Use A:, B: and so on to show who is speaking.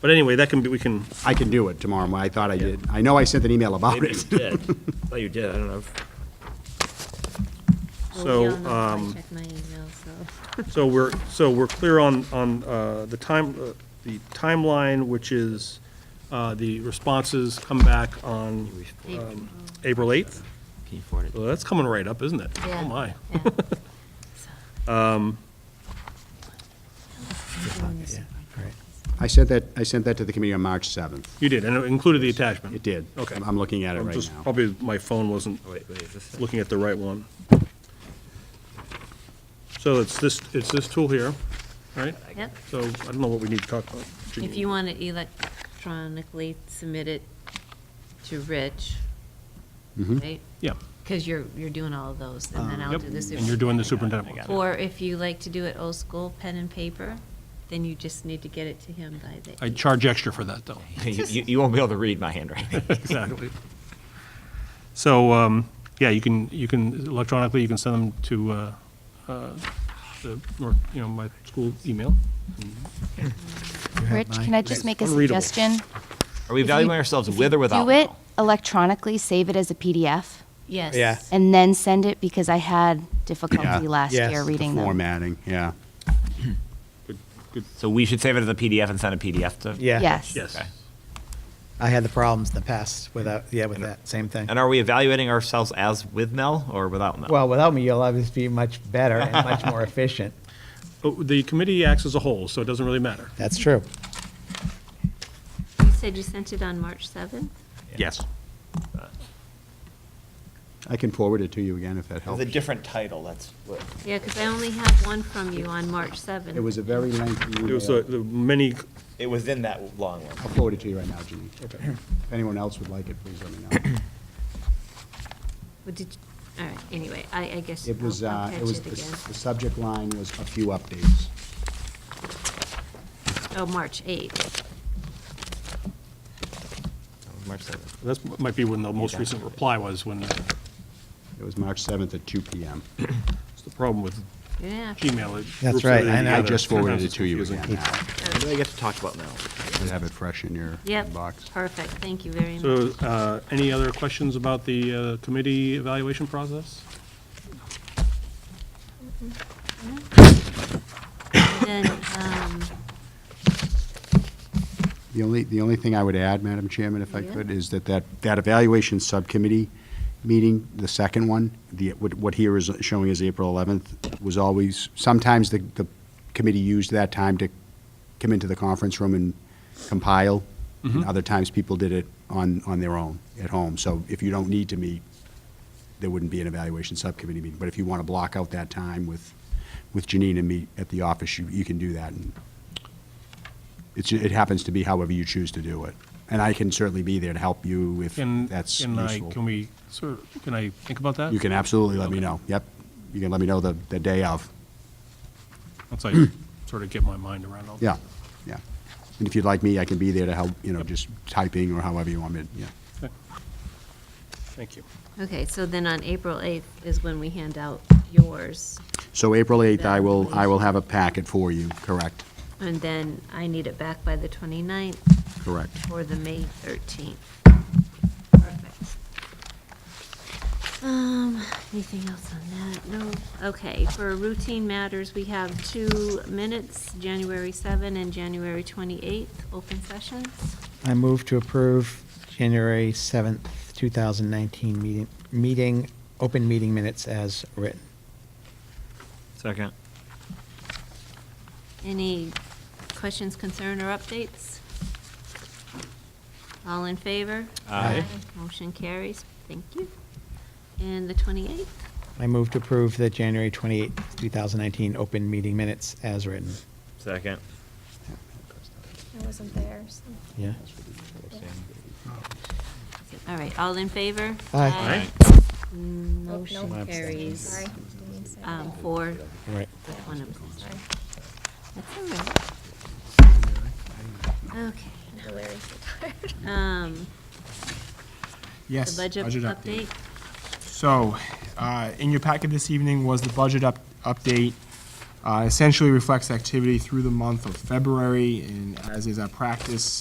A: But anyway, that can be, we can,
B: I can do it tomorrow, I thought I did. I know I sent an email about
C: Maybe you
B: it.
C: did. Oh, you did, I don't know.
A: So,
D: I'll be on the call. I
A: um,
D: check my email, so.
A: so we're, so we're clear on, on uh, the time, uh, the timeline, which is uh, the responses come back on um,
D: April.
A: April 8th.
C: Can you forward
A: Well, that's coming right up, isn't it?
D: Yeah.
A: Oh, my. Um,
D: Yeah. So-
B: I sent that, I sent that to the committee on March 7th.
A: You did, and it included the attachment.
B: It did.
A: Okay.
B: I'm- I'm looking at it
A: I'm
B: right
A: just-
B: now.
A: Probably my phone wasn't
C: Oh, Wait, wait, is this?
A: looking at the right one. So it's this, it's this tool here, right?
D: Yep.
A: So I don't know what we need to talk about.
D: If you want to electronically submit it to Rich,
B: Mm-hmm.
D: right?
A: Yeah.
D: Because you're, you're doing all of those, and then I'll
A: Um, Yep,
D: do this.
A: And you're doing the superintendent one.
D: Or if you like to do it old school, pen and paper, then you just need to get it to him by the.
A: I charge extra for that, though.
C: You, you- you won't be able to read my handwriting.
A: Exactly. So, um, yeah, you can, you can electronically, you can send them to, uh, uh, the, North- you know, my school email.
E: Rich, can I just make a
A: Unreadable.
E: suggestion?
C: Are we evaluating ourselves with or without?
E: Do it
C: now?
E: electronically, save it as a PDF,
D: Yes.
F: Yeah.
E: and then send it because I had difficulty
B: Yeah.
E: last
F: Yes.
E: year reading them.
B: Formatting, yeah.
C: So we should save it as a PDF and send a PDF to?
F: Yeah.
E: Yes.
A: Yes.
C: Okay.
F: I had the problems in the past without, yeah, with that same thing.
C: And are we evaluating ourselves as with Mel or without Mel?
F: Well, without me, you'll obviously be much better and much more efficient.
A: Oh, The committee acts as a whole, so it doesn't really matter.
F: That's true.
D: You said you sent it on March 7th?
A: Yes.
B: I can forward it to you again if that
C: With
B: helps.
C: a different title, that's what.
D: Yeah, because I only have one from you on March 7th.
B: It was a very lengthy
A: It was,
B: email.
A: uh, the many,
C: It was in that long one.
B: I'll forward it to you right now, Jeanine. If anyone else would like it, please let me know.
D: Well, did you- All right, anyway, I, I guess I'll
B: It was,
D: I'll
B: uh,
D: catch
B: it was,
D: it
B: the
D: again.
B: s- the subject line was a few updates.
D: Oh, March 8th.
C: March 7th.
A: that's, might be when the most recent reply was, when, that's
B: It was March 7th at 2 PM.
A: the problem with
D: Yeah.
A: Gmail. it
F: That's
A: groups
F: right,
A: everything
F: I know. I
B: I
A: together.
B: just forwarded
A: Sometimes
B: it
A: it's
B: to you
A: confusing.
B: again now.
C: What do I get to talk about now?
B: You have it fresh in your
D: Yep,
B: box.
D: perfect, thank you very much.
A: So, uh, any other questions about the uh, committee evaluation process?
D: And Then, um,
B: The only, the only thing I would add, Madam Chairman, if I
D: Yeah.
B: could, is that that, that evaluation subcommittee meeting, the second one, the, what what here is showing as April 11th, was always, sometimes the, the committee used that time to come into the conference room and compile, and other times people did it on, on their own, at home. So if you don't need to meet, there wouldn't be an evaluation subcommittee meeting. But if you want to block out that time with, with Janine and meet at the office, you, you can do that, and it's, it happens to be however you choose to do it. And I can certainly be there to help you if
A: Can,
B: that's
A: can I, can
B: useful.
A: we, sort of- can I think about that?
B: You can absolutely let me
A: Okay.
B: know. Yep. You can let me know the, the day of.
A: Once I sort of get my mind around all this.
B: Yeah, yeah. And if you'd like me, I can be there to help, you know, just typing or however you want me to, yeah.
A: Okay. Thank you.
D: okay, so then on April 8th is when we hand out yours,
B: So April 8th, I will, I will have a packet for you, correct?
D: and then I need it back by the 29th
B: Correct.
D: or the May 13th. Perfect. Um, anything else on that? No? Okay, for routine matters, we have two minutes, January 7 and January 28th, open sessions.
F: I move to approve January 7th, 2019 meeting, meeting, open meeting minutes as written.
C: Second.
D: Any questions, concern, or updates? All in favor?
C: Aye.
D: Motion carries. Thank you. And the 28th?
F: I move to approve the January 28th, 2019 open meeting minutes as written.
C: Second.
G: I wasn't there, so.
F: Yeah?
D: All right, all in favor?
F: Aye.
D: Mm,
G: Nope,
D: Motion
G: nope.
D: carries.
G: Oh, Sorry. didn't say that.
D: Um, Four,
F: All right.
D: with one abstention.
G: Sorry.
D: That's all right. Okay.
G: I'm delirious.
D: Um, The
H: Yes.
D: budget update?
H: So, uh, in your packet this evening was the budget up- update. Uh, Essentially reflects activity through the month of February, and as is our practice,